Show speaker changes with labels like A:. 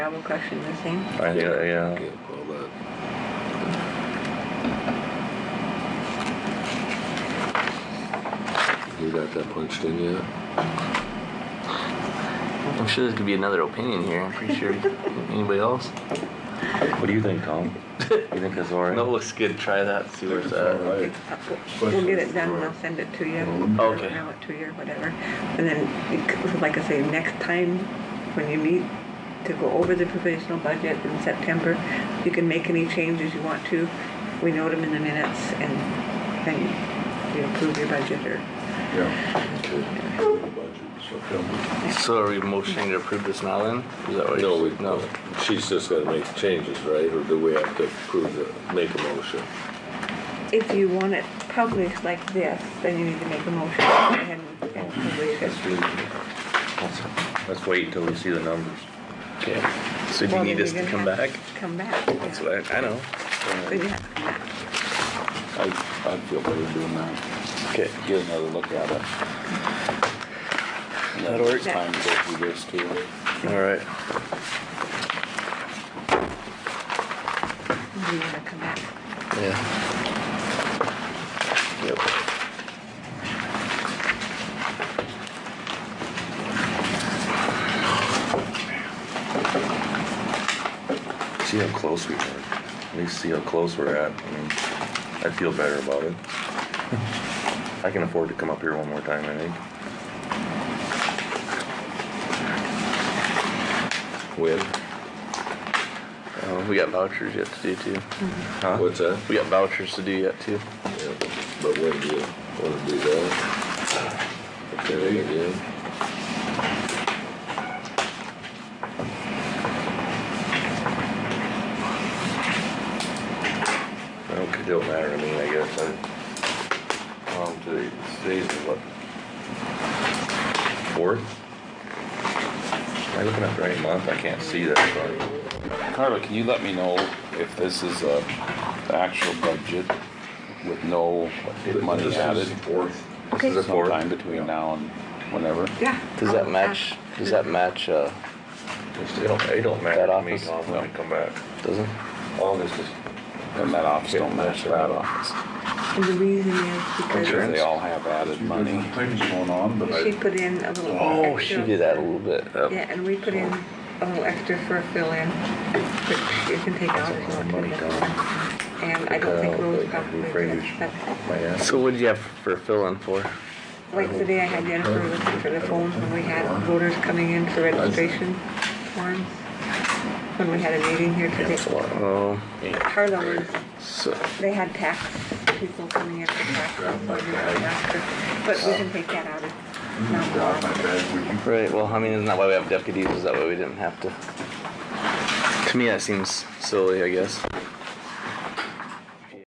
A: double crushing the same.
B: Uh,
C: I, yeah, yeah.
D: Can't call that. uh, You got that punched in yet?
B: I'm sure there's gonna be another opinion here. I'm pretty sure. Anybody else?
C: What do you think, Tom? you think it's alright?
B: No, it looks good. Try that. See where it's at.
D: Alright.
A: We'll get it done and I'll send it to you.
B: Okay.
A: Mail it to you or whatever. And then, you c- like I say, next time when you meet to go over the provisional budget in September, you can make any changes you want to. We note them in the minutes and then you approve your budget or.
D: Okay. Budget, September.
B: So are we motioning to approve this now then? Is that what
D: No,
B: you
D: we, no, she's just gonna make changes, right, or do we have to approve the, make a motion?
A: If you want it published like this, then you need to make a motion to go ahead and and publish it.
C: Let's do- let's- Let's wait until we see the numbers.
B: Okay. So do you
A: Well,
B: need
A: then
B: us
A: you're
B: to come
A: gonna
B: back?
A: have to Come back. yeah.
B: That's what I, I know.
A: But you have to come back.
E: I, I'd feel better doing that,
B: Okay.
E: get another look at it.
B: That'll work.
E: It's Time to go through this too.
B: All right.
A: You wanna come back.
B: Yeah. Yep.
C: See how close we are. At least see how close we're at. I mean, I feel better about it. I can afford to come up here one more time, I think.
D: When?
B: Uh, we got vouchers yet to do too.
C: Huh?
D: What's that?
B: We got vouchers to do yet too.
D: Yeah, But when do you wanna do that? Okay, again,
C: I don't, it don't matter to me, I guess. I, um, today, today's the what? Fourth? Am I looking at the right month? I can't see that far.
E: Carla, can you let me know if this is a actual budget with no money added?
C: fourth. This
A: Okay.
C: is the fourth.
E: Sometime between now and whenever?
A: Yeah.
B: Does that match? Does that match? Uh,
C: It's- It don't, it don't matter
B: That
C: to me,
B: office?
C: Tom, when I
E: No.
C: come back.
B: doesn't?
C: August is,
E: And that office don't match that office.
A: And the reason is
E: Because
A: because
E: they all have added money.
F: Things going on, but
A: she put in a little.
B: Oh, she
A: extra.
B: did that a little bit. Yep.
A: Yeah, and we put in a little extra for a fill-in, which you can take out if you want
C: Money
A: to. And I don't think Rose probably did, but
C: my ass.
B: So what did you have for fill-in for?
A: like today I had Jennifer looking for the phones when we had voters coming in for registration forms. When we had a meeting here today.
B: Oh,
A: Harlem,
B: so
A: they had tax people coming in for tax. But we can take that out of
F: dropped my
A: non-law.
F: bag, would you
B: right. Well, I mean, isn't that why we have deputies? Is that why we didn't have to? To me, that seems silly. I guess.